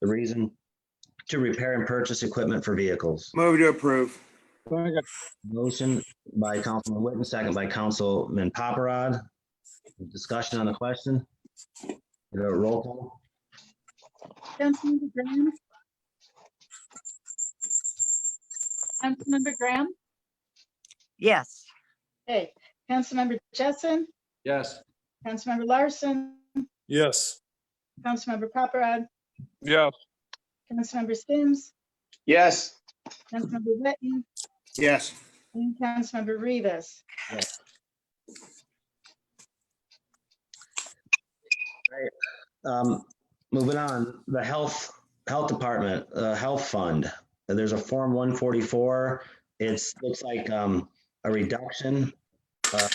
the reason to repair and purchase equipment for vehicles. Move to approve. Second. Motion by Councilman Whitten, second by Councilman Paparad. Discussion on the question. Give it a roll call. Councilmember Graham? Councilmember Graham? yes, Hey, Councilmember Jessen, yes, Councilmember Larson, Yes. Councilmember Paparad, Yes. Councilmember Sims, Yes. Councilmember Whitten, Yes. and Councilmember Rivas. Um, moving on, the Health, Health Department, uh, Health Fund. There's a Form one forty-four. It's, looks like, um, a reduction uh,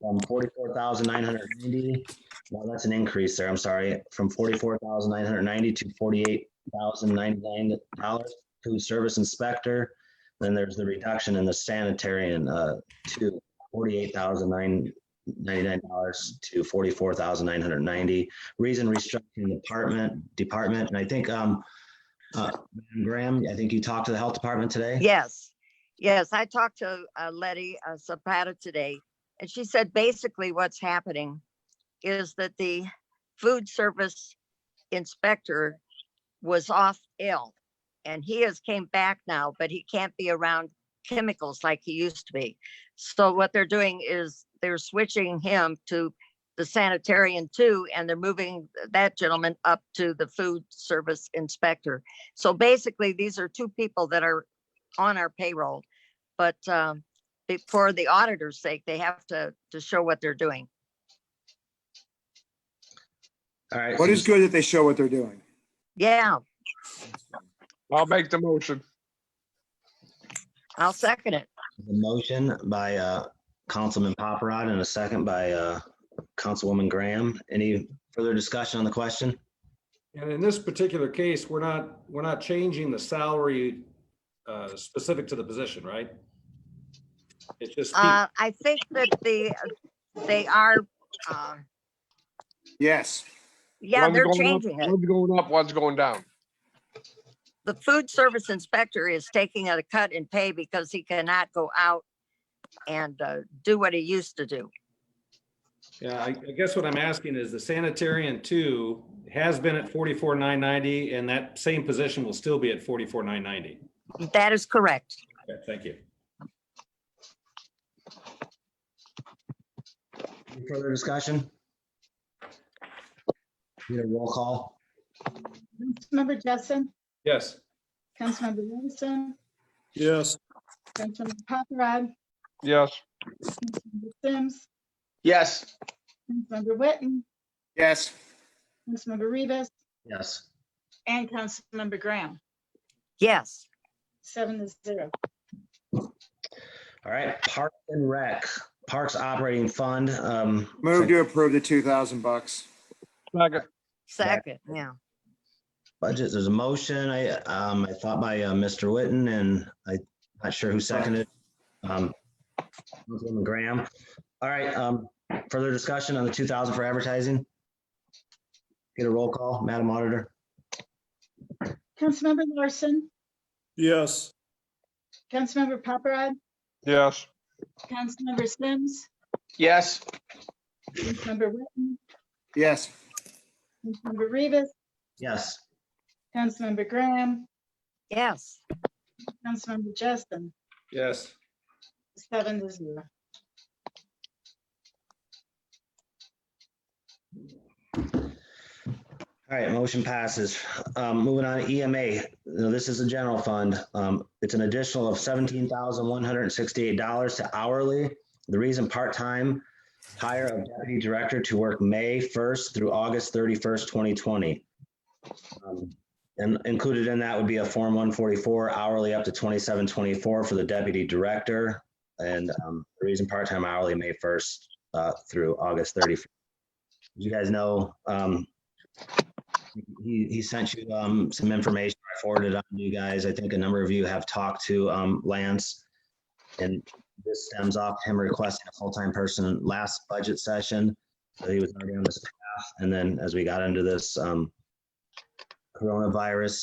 from forty-four thousand nine hundred ninety. Well, that's an increase there, I'm sorry, from forty-four thousand nine hundred ninety to forty-eight thousand ninety-nine dollars to service inspector. Then there's the reduction in the sanitary and, uh, to forty-eight thousand nine ninety-nine dollars to forty-four thousand nine hundred ninety reason restructuring the department, department, and I think, um, uh, Madam Graham, I think you talked to the health department today? yes. Yes, I talked to uh, Letty uh, Zapata today, and she said basically what's happening is that the food service inspector was off ill, and he has came back now, but he can't be around chemicals like he used to be. So what they're doing is they're switching him to the sanitarian too, and they're moving that gentleman up to the food service inspector. So basically, these are two people that are on our payroll, but um, be- for the auditor's sake, they have to, to show what they're doing. All right. What is good that they show what they're doing? Yeah, I'll make the motion. I'll second it. The motion by, uh, Councilman Paparad and a second by, uh, Councilwoman Graham. Any further discussion on the question? and in this particular case, we're not, we're not changing the salary uh, specific to the position, right? It's just, Uh, I think that the, they are, uh, Yes. yeah, One's they're going up- changing it. One's going up, one's going down. The food service inspector is taking a cut in pay because he cannot go out and uh, do what he used to do. yeah, I I guess what I'm asking is the sanitarian two has been at forty-four nine ninety, and that same position will still be at forty-four nine ninety. That is correct. Thank you. Any Further discussion? Need a roll call? Councilmember Jessen, Yes. Councilmember Larson, Yes. Councilmember Paparad, Yes. Councilmember Sims, Yes. Councilmember Whitten, Yes. Councilmember Rivas, Yes. and Councilmember Graham, Yes, seven to zero. All right, Parks and Rec, Parks Operating Fund, um. Move to approve the two thousand bucks. Second. second, yeah. Budget, there's a motion, I, um, I thought by, uh, Mr. Witten and I, not sure who seconded. Um, Councilwoman Graham. All right, um, further discussion on the two thousand for advertising? Get a roll call, Madam Auditor? Councilmember Larson, Yes. Councilmember Paparad, Yes. Councilmember Sims, Yes. Councilmember Whitten, Yes. Councilmember Rivas, Yes. Councilmember Graham, Yes, Councilmember Justin, Yes. seven to zero. All right, motion passes. Um, moving on to EMA, Now, this is a general fund. Um, it's an additional of seventeen thousand one hundred and sixty-eight dollars to hourly. The reason part-time hire of deputy director to work May first through August thirty-first, twenty twenty. Um, And included in that would be a Form one forty-four hourly up to twenty-seven twenty-four for the deputy director. And, um, the reason part-time hourly, May first, uh, through August thirty-first. You guys know, um, he, he sent you um, some information I forwarded on to you guys. I think a number of you have talked to um, Lance. And this stems off him requesting a full-time person last budget session. So he was already on this path. And then as we got into this um, coronavirus